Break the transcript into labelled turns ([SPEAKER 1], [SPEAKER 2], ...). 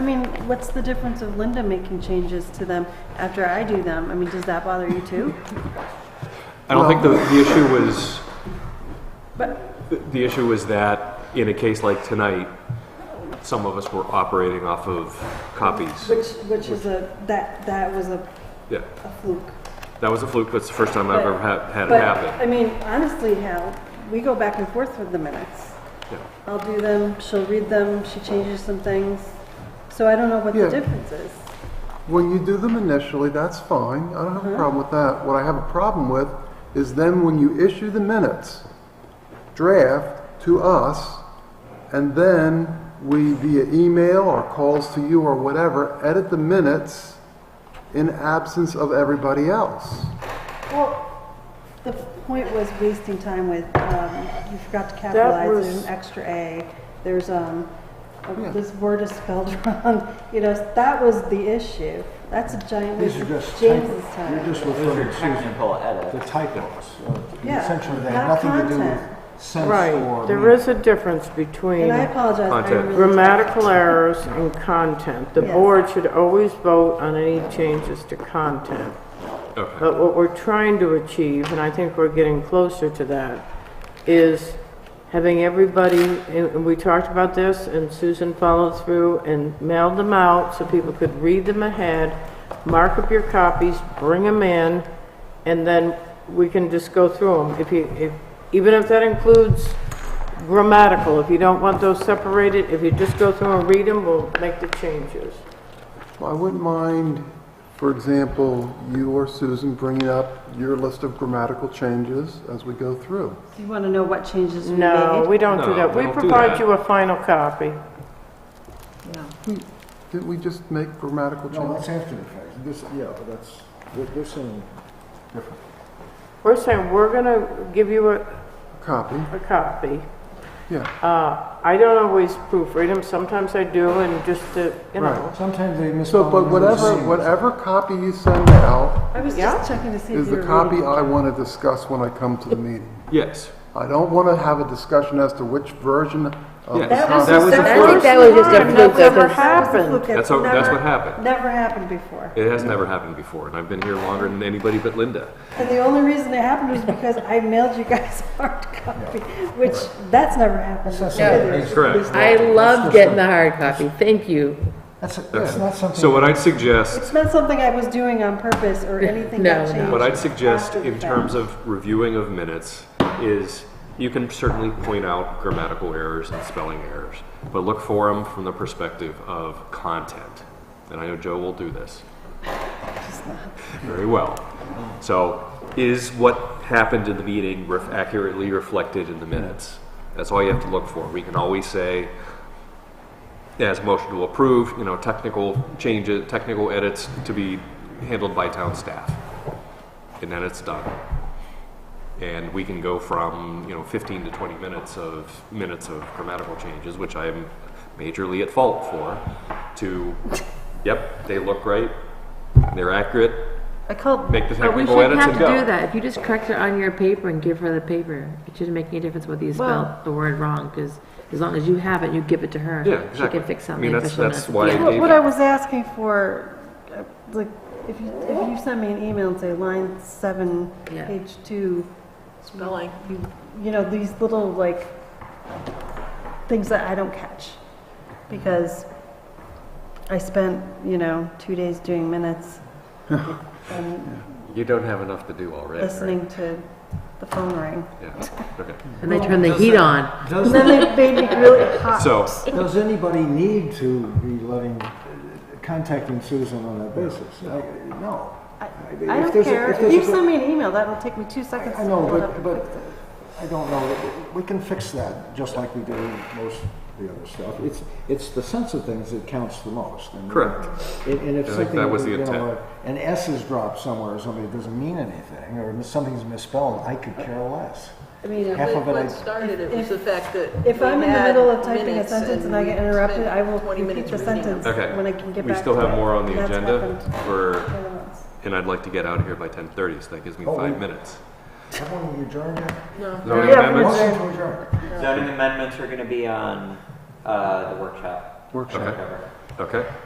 [SPEAKER 1] what's the difference of Linda making changes to them after I do them? I mean, does that bother you too?
[SPEAKER 2] I don't think the, the issue was,
[SPEAKER 1] But,
[SPEAKER 2] the issue was that in a case like tonight, some of us were operating off of copies.
[SPEAKER 1] which, which is a, that, that was a
[SPEAKER 2] Yeah,
[SPEAKER 1] a fluke.
[SPEAKER 2] that was a fluke, that's the first time I've ever had, had it
[SPEAKER 1] But,
[SPEAKER 2] happen.
[SPEAKER 1] I mean, honestly, Hal, we go back and forth with the minutes.
[SPEAKER 2] Yeah.
[SPEAKER 1] I'll do them, she'll read them, she changes some things. So I don't know what the
[SPEAKER 3] Yeah.
[SPEAKER 1] difference is.
[SPEAKER 3] When you do them initially, that's fine. I don't have a problem with that. What I have a problem with is then when you issue the minutes, draft to us, and then we via email or calls to you or whatever, edit the minutes in absence of everybody else.
[SPEAKER 1] Well, the point was wasting time with, um, you forgot to
[SPEAKER 4] was-
[SPEAKER 1] capitalize an extra A. There's, um, oh,
[SPEAKER 3] Yeah.
[SPEAKER 1] this word is spelled wrong. You know, that was the issue. That's a giant
[SPEAKER 5] These
[SPEAKER 1] waste
[SPEAKER 5] are just
[SPEAKER 1] of
[SPEAKER 5] typos.
[SPEAKER 1] James's
[SPEAKER 5] You're
[SPEAKER 1] time.
[SPEAKER 5] just
[SPEAKER 6] Those
[SPEAKER 5] referring
[SPEAKER 6] are
[SPEAKER 5] to
[SPEAKER 6] technical
[SPEAKER 5] the
[SPEAKER 6] edits.
[SPEAKER 5] typos. Uh,
[SPEAKER 1] Yeah,
[SPEAKER 5] Essentially, they
[SPEAKER 1] not
[SPEAKER 5] have nothing to do
[SPEAKER 1] content.
[SPEAKER 5] with sense or.
[SPEAKER 4] Right, there is a difference between
[SPEAKER 1] And I apologize. I
[SPEAKER 2] Content.
[SPEAKER 1] really-
[SPEAKER 4] grammatical errors and content. The
[SPEAKER 1] Yes.
[SPEAKER 4] board should always vote on any changes to content.
[SPEAKER 2] Okay,
[SPEAKER 4] But what we're trying to achieve, and I think we're getting closer to that, is having everybody, and and we talked about this, and Susan followed through and mailed them out so people could read them ahead, mark up your copies, bring them in, and then we can just go through them. If you, if, even if that includes grammatical, if you don't want those separated, if you just go through and read them, we'll make the changes.
[SPEAKER 3] Well, I wouldn't mind, for example, you or Susan bringing up your list of grammatical changes as we go through.
[SPEAKER 1] You want to know what changes we made?
[SPEAKER 4] No, we don't do
[SPEAKER 2] No,
[SPEAKER 4] that.
[SPEAKER 2] we
[SPEAKER 4] We
[SPEAKER 2] don't do
[SPEAKER 4] provide
[SPEAKER 2] that.
[SPEAKER 4] you a final copy.
[SPEAKER 3] Didn't we just make grammatical
[SPEAKER 5] No,
[SPEAKER 3] changes?
[SPEAKER 5] Oh, that's after the fact. This, yeah, that's, they're- they're saying different.
[SPEAKER 4] We're saying, we're gonna give you a,
[SPEAKER 3] Copy,
[SPEAKER 4] a copy.
[SPEAKER 3] yeah.
[SPEAKER 4] Uh, I don't always proofread them, sometimes I do, and just to, you know.
[SPEAKER 3] Right.
[SPEAKER 5] Sometimes they miss.
[SPEAKER 3] So, but whatever, whatever copy you send out
[SPEAKER 1] I was
[SPEAKER 4] Yeah.
[SPEAKER 1] just checking to see if
[SPEAKER 3] is
[SPEAKER 1] you
[SPEAKER 3] the
[SPEAKER 1] were
[SPEAKER 3] copy
[SPEAKER 1] reading.
[SPEAKER 3] I want to discuss when I come to the meeting.
[SPEAKER 2] yes,
[SPEAKER 3] I don't want to have a discussion as to which version of the
[SPEAKER 1] That was the
[SPEAKER 3] copy.
[SPEAKER 2] That was
[SPEAKER 1] second-
[SPEAKER 2] a
[SPEAKER 7] I think that was just a
[SPEAKER 4] Time
[SPEAKER 7] fluke.
[SPEAKER 4] that's ever
[SPEAKER 1] That
[SPEAKER 7] because-
[SPEAKER 1] was a
[SPEAKER 4] happened.
[SPEAKER 1] fluke.
[SPEAKER 2] That's how- that's
[SPEAKER 1] never-
[SPEAKER 2] what happened.
[SPEAKER 1] Never happened before.
[SPEAKER 2] it has never happened before, and I've been here longer than anybody but Linda.
[SPEAKER 1] And the only reason it happened was because I mailed you guys a hard copy, which that's never happened.
[SPEAKER 5] That's
[SPEAKER 1] before
[SPEAKER 5] not-
[SPEAKER 1] either.
[SPEAKER 2] Correct.
[SPEAKER 7] I love getting the hard copy, thank you.
[SPEAKER 5] That's, that's not something.
[SPEAKER 2] So what I'd suggest
[SPEAKER 1] It's not something I was doing on purpose or anything
[SPEAKER 7] No,
[SPEAKER 1] that
[SPEAKER 7] no.
[SPEAKER 1] changed.
[SPEAKER 2] What I'd suggest
[SPEAKER 1] after the
[SPEAKER 2] in
[SPEAKER 1] fact.
[SPEAKER 2] terms of reviewing of minutes is you can certainly point out grammatical errors and spelling errors, but look for them from the perspective of content. And I know Joe will do this. Very well. So, is what happened in the meeting ref- accurately reflected in the minutes? That's all you have to look for. We can always say, as motion to approve, you know, technical changes, technical edits to be handled by town staff and then it's done. And we can go from, you know, 15 to 20 minutes of, minutes of grammatical changes, which I'm majorly at fault for, to, yep, they look right, they're accurate,
[SPEAKER 7] I called.
[SPEAKER 2] Make the
[SPEAKER 7] But we
[SPEAKER 2] technical
[SPEAKER 7] shouldn't
[SPEAKER 2] edits
[SPEAKER 7] have
[SPEAKER 2] and
[SPEAKER 7] to
[SPEAKER 2] go.
[SPEAKER 7] do that. If you just correct it on your paper and give her the paper, it shouldn't make any difference whether you
[SPEAKER 4] Well-
[SPEAKER 7] spell the word wrong, because as long as you have it, you give it to her.
[SPEAKER 2] Yeah, exactly.
[SPEAKER 7] She can fix
[SPEAKER 2] I
[SPEAKER 7] something.
[SPEAKER 2] mean,
[SPEAKER 7] if
[SPEAKER 2] that's-
[SPEAKER 7] she'll
[SPEAKER 2] that's
[SPEAKER 7] not-
[SPEAKER 2] why-
[SPEAKER 7] Yeah.
[SPEAKER 1] What, what I was asking for, uh, like, if you, if you send me an email and say line seven,
[SPEAKER 7] Yeah.
[SPEAKER 1] page two,
[SPEAKER 4] Spelling.
[SPEAKER 1] you, you know, these little like things that I don't catch because I spent, you know, two days doing minutes and
[SPEAKER 2] you don't have enough to do already.
[SPEAKER 1] listening to the phone ring.
[SPEAKER 2] Yeah, okay.
[SPEAKER 7] And they turn the heat on.
[SPEAKER 1] And
[SPEAKER 5] Does,
[SPEAKER 1] then they made me really hot.
[SPEAKER 2] So,
[SPEAKER 5] does anybody need to be letting, contacting Susan on that basis? I- No.
[SPEAKER 1] I,
[SPEAKER 5] mean,
[SPEAKER 1] I
[SPEAKER 5] if
[SPEAKER 1] don't
[SPEAKER 5] there's a-
[SPEAKER 1] care.
[SPEAKER 5] if
[SPEAKER 1] If
[SPEAKER 5] there's
[SPEAKER 1] you
[SPEAKER 5] a-
[SPEAKER 1] send me an email, that'll take me two seconds
[SPEAKER 5] I
[SPEAKER 1] to
[SPEAKER 5] know,
[SPEAKER 1] pull it up.
[SPEAKER 5] but, but I don't know, we can fix that, just like we do most of the other stuff. It's, it's the sense of things that counts the most. and-
[SPEAKER 2] Correct.
[SPEAKER 5] And and if
[SPEAKER 2] I think
[SPEAKER 5] something,
[SPEAKER 2] that was the
[SPEAKER 5] you
[SPEAKER 2] intent.
[SPEAKER 5] know, an S is dropped somewhere, or something that doesn't mean anything, or something's misspelled, I could care less.
[SPEAKER 1] I mean,
[SPEAKER 5] Half of it,
[SPEAKER 8] What
[SPEAKER 5] I,
[SPEAKER 8] started it was the fact that.
[SPEAKER 1] If
[SPEAKER 8] we
[SPEAKER 1] I'm in the
[SPEAKER 8] had
[SPEAKER 1] middle of typing a
[SPEAKER 8] minutes
[SPEAKER 1] sentence and I get interrupted,
[SPEAKER 8] spent
[SPEAKER 1] I will
[SPEAKER 8] 20
[SPEAKER 1] repeat
[SPEAKER 8] minutes
[SPEAKER 1] the
[SPEAKER 8] reading them.
[SPEAKER 1] sentence
[SPEAKER 2] okay.
[SPEAKER 1] when I can get back to it.
[SPEAKER 2] We still have more on the
[SPEAKER 1] That's
[SPEAKER 2] agenda
[SPEAKER 1] happened
[SPEAKER 2] for,
[SPEAKER 1] more than once.
[SPEAKER 2] and I'd like to get out of here by 10:30, so that gives me
[SPEAKER 5] Oh,
[SPEAKER 2] five
[SPEAKER 5] we-
[SPEAKER 2] minutes.
[SPEAKER 5] someone you adjourned yet?
[SPEAKER 2] Zoning
[SPEAKER 1] Yeah, we-
[SPEAKER 2] amendments?
[SPEAKER 5] Motion to adjourn.
[SPEAKER 6] Zoning amendments are gonna be on, uh, the workshop.
[SPEAKER 2] Workshop.
[SPEAKER 6] Whatever.
[SPEAKER 2] Okay.